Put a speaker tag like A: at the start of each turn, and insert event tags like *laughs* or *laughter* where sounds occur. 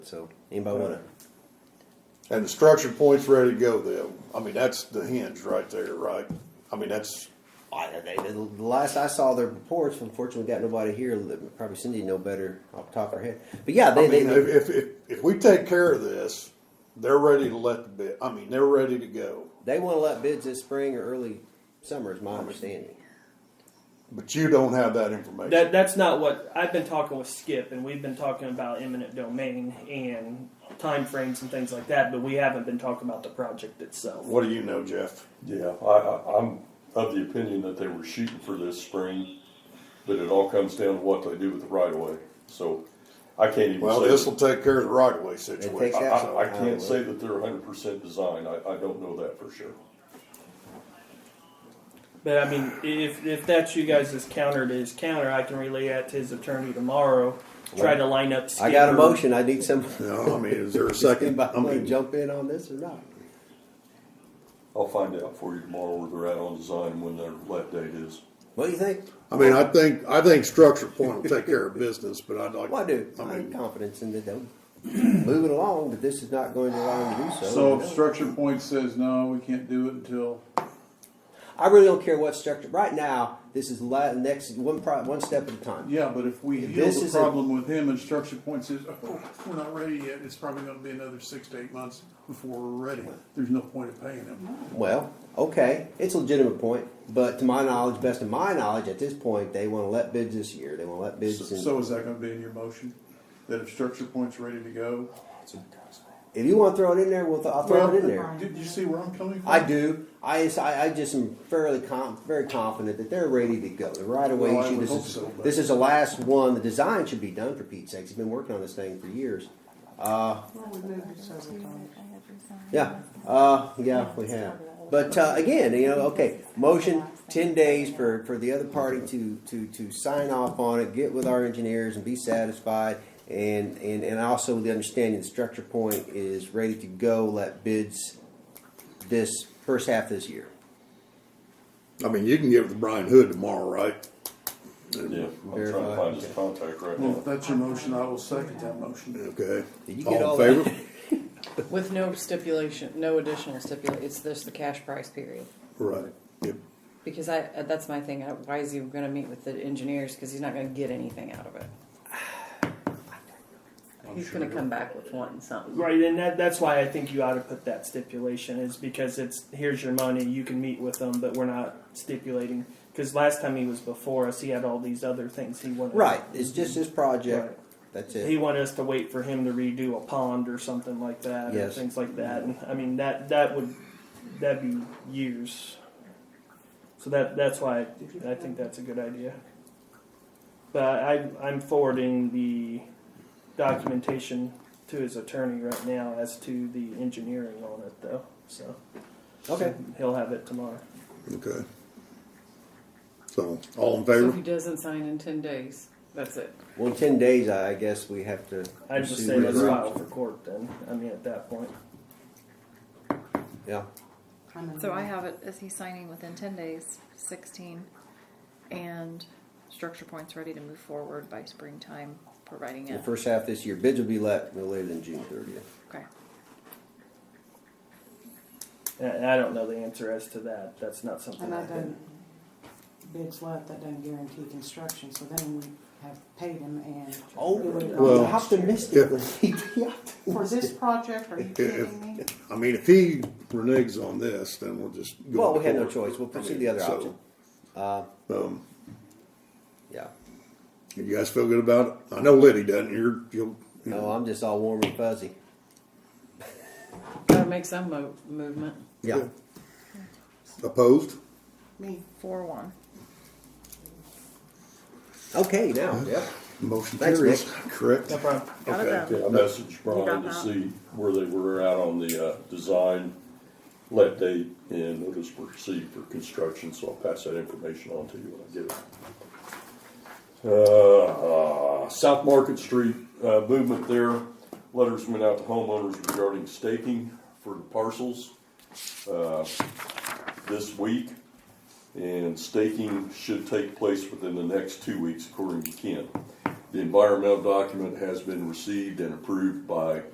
A: So anybody want to?
B: And the structure point's ready to go then. I mean, that's the hinge right there, right? I mean, that's,
A: I, they, the the last I saw their reports, unfortunately, we got nobody here. that- Probably Cindy know better off the top of her head. But yeah, they,
B: I mean,
A: they,
B: if, if, if, if we take care of this, they're ready to let the bid, I mean, they're ready to go.
A: they want to let bids this spring or early summer, is my understanding.
B: But you don't have that information.
C: That that's not what I've been talking with Skip, and we've been talking about eminent domain and timeframes and things like that, but we haven't been talking about the project itself.
B: What do you know, Jeff?
D: Yeah, I, I, I'm of the opinion that they were shooting for this spring, but it all comes down to what they do with the right of way. So I can't even
B: Well, this will
D: say,
B: take care of the right of way
A: takes
D: I,
B: situation.
A: out-
D: I, I can't say that they're hundred percent designed. I, I don't know that for sure.
C: But I mean, if if that's you guys' counter to his counter, I can relay that to his attorney tomorrow. Try to line up. Skip
A: I got a
C: or-
A: motion. I need some. *laughs*
B: No, I mean, is there a second? I
A: Anybody want to
B: mean,
A: jump in on this or not?
D: I'll find out for you tomorrow where they're at on design and when their let date is.
A: What do you think?
B: I mean, I think, I think structure point will take care of business, but I'd like.
A: Well, I do. I
B: I
A: have
B: mean,
A: confidence in that they'll move it along, but this is not going to allow them to do so.
E: So if structure point says no, we can't do it until,
A: I really don't care what structure. Right now, this is la- next one pro- one step at a time.
E: yeah, but if we heal
A: This
E: the
A: is a-
E: problem with him and structure point says, oh, we're not ready yet, it's probably gonna be another six to eight months before we're ready. There's no point in paying him.
A: Well, okay, it's a legitimate point, but to my knowledge, best of my knowledge, at this point, they want to let bids this year. They want to let bids. in.
E: So is that gonna be in your motion? That if structure point's ready to go?
A: if you want to throw it in there, we'll th- I'll throw
E: Well,
A: it in there.
E: Did you see where I'm coming from?
A: I do. I, just- I, I just am fairly com- very confident that they're ready to go. The right away
E: Well, I
A: issue.
E: would
A: This
E: hope
A: is
E: so, but-
A: this is the last one. The design should be done for Pete's sake. He's been working on this thing for years.
F: Well, we moved it several times.
A: Yeah, uh, yeah, we have. But uh, again, you know, okay, motion ten days for, for the other party to, to, to sign off on it, get with our engineers and be satisfied. And, and, and also the understanding the structure point is ready to go, let bids this first half this year.
B: I mean, you can give it to Brian Hood tomorrow, right?
D: Yeah, I'm trying
A: Verify,
D: to find his contact right
E: Well, if
D: now.
E: that's your motion, I will second that motion.
B: Okay.
A: Did you get all
B: All
A: that?
B: in favor?
G: With no stipulation, no additional stipulation, it's just the cash price period.
B: Right. Yep.
G: Because I, uh, that's my thing, I- why is he gonna meet with the engineers, cause he's not gonna get anything out of it. He's gonna come back with one, something.
C: Right, and that, that's why I think you ought to put that stipulation is because it's here's your money, you can meet with them, but we're not stipulating. Because last time he was before us, he had all these other things he wanted.
A: Right, it's just this project, that's
C: He
A: it.
C: wanted us to wait for him to redo a pond or something like that,
A: Yes.
C: or things like that. And I mean that that would that'd be years. So that that's why I think that's a good idea. But I I'm forwarding the documentation to his attorney right now as to the engineering on it though. So
A: Okay,
C: he'll have it tomorrow.
B: Okay. So, all in
G: So
B: favor?
G: if he doesn't sign in ten days, that's it.
A: well, in ten days, I guess we have to.
C: I just
A: pursue
C: say let's
A: this.
C: file for court then. I mean at that point.
A: Yeah,
H: So I have it, is he signing within ten days, sixteen, and structure point's ready to move forward by springtime, providing
A: the
H: it,
A: first half this year, bids will be let no later than June thirtieth.
H: okay.
C: And I don't know the answer as to that. That's not something
F: And
C: I
F: that
C: did.
F: doesn't, bids left, that doesn't guarantee construction, so then we have paid him and.
A: Oh,
F: it would've gone
B: Well-
A: well,
F: next year.
A: optimistic.
F: For this project, are you kidding me?
B: I mean, if he reneges on this, then we'll just
A: *laughs*
B: go.
A: well,
B: to
A: we had no
B: court.
A: choice. We'll pursue the
B: I
A: other
B: mean, so,
A: option.
B: Um,
A: Yeah.
B: you guys feel good about it? I know Liddy doesn't. You're, you'll, you
A: No,
B: know,
A: Oh, I'm just all warm and fuzzy.
G: Gotta make some mo- movement.
A: Yeah.
B: opposed?
F: Me.
H: Four one.
A: Okay, now. Yep.
B: Motion
A: Thanks,
B: carries,
A: Nick.
B: correct?
H: No
B: problem.
H: Got it
B: Okay.
H: done.
D: Yeah, I messaged Brian to see where they were at on the, uh, design, let date, and notice to proceed for construction, so I'll pass that information on to you when I get it. Uh, South Market Street, uh, movement there, letters went out to homeowners regarding staking for the parcels, uh, this week. And staking should take place within the next two weeks according to Ken. The environmental document has been received and approved by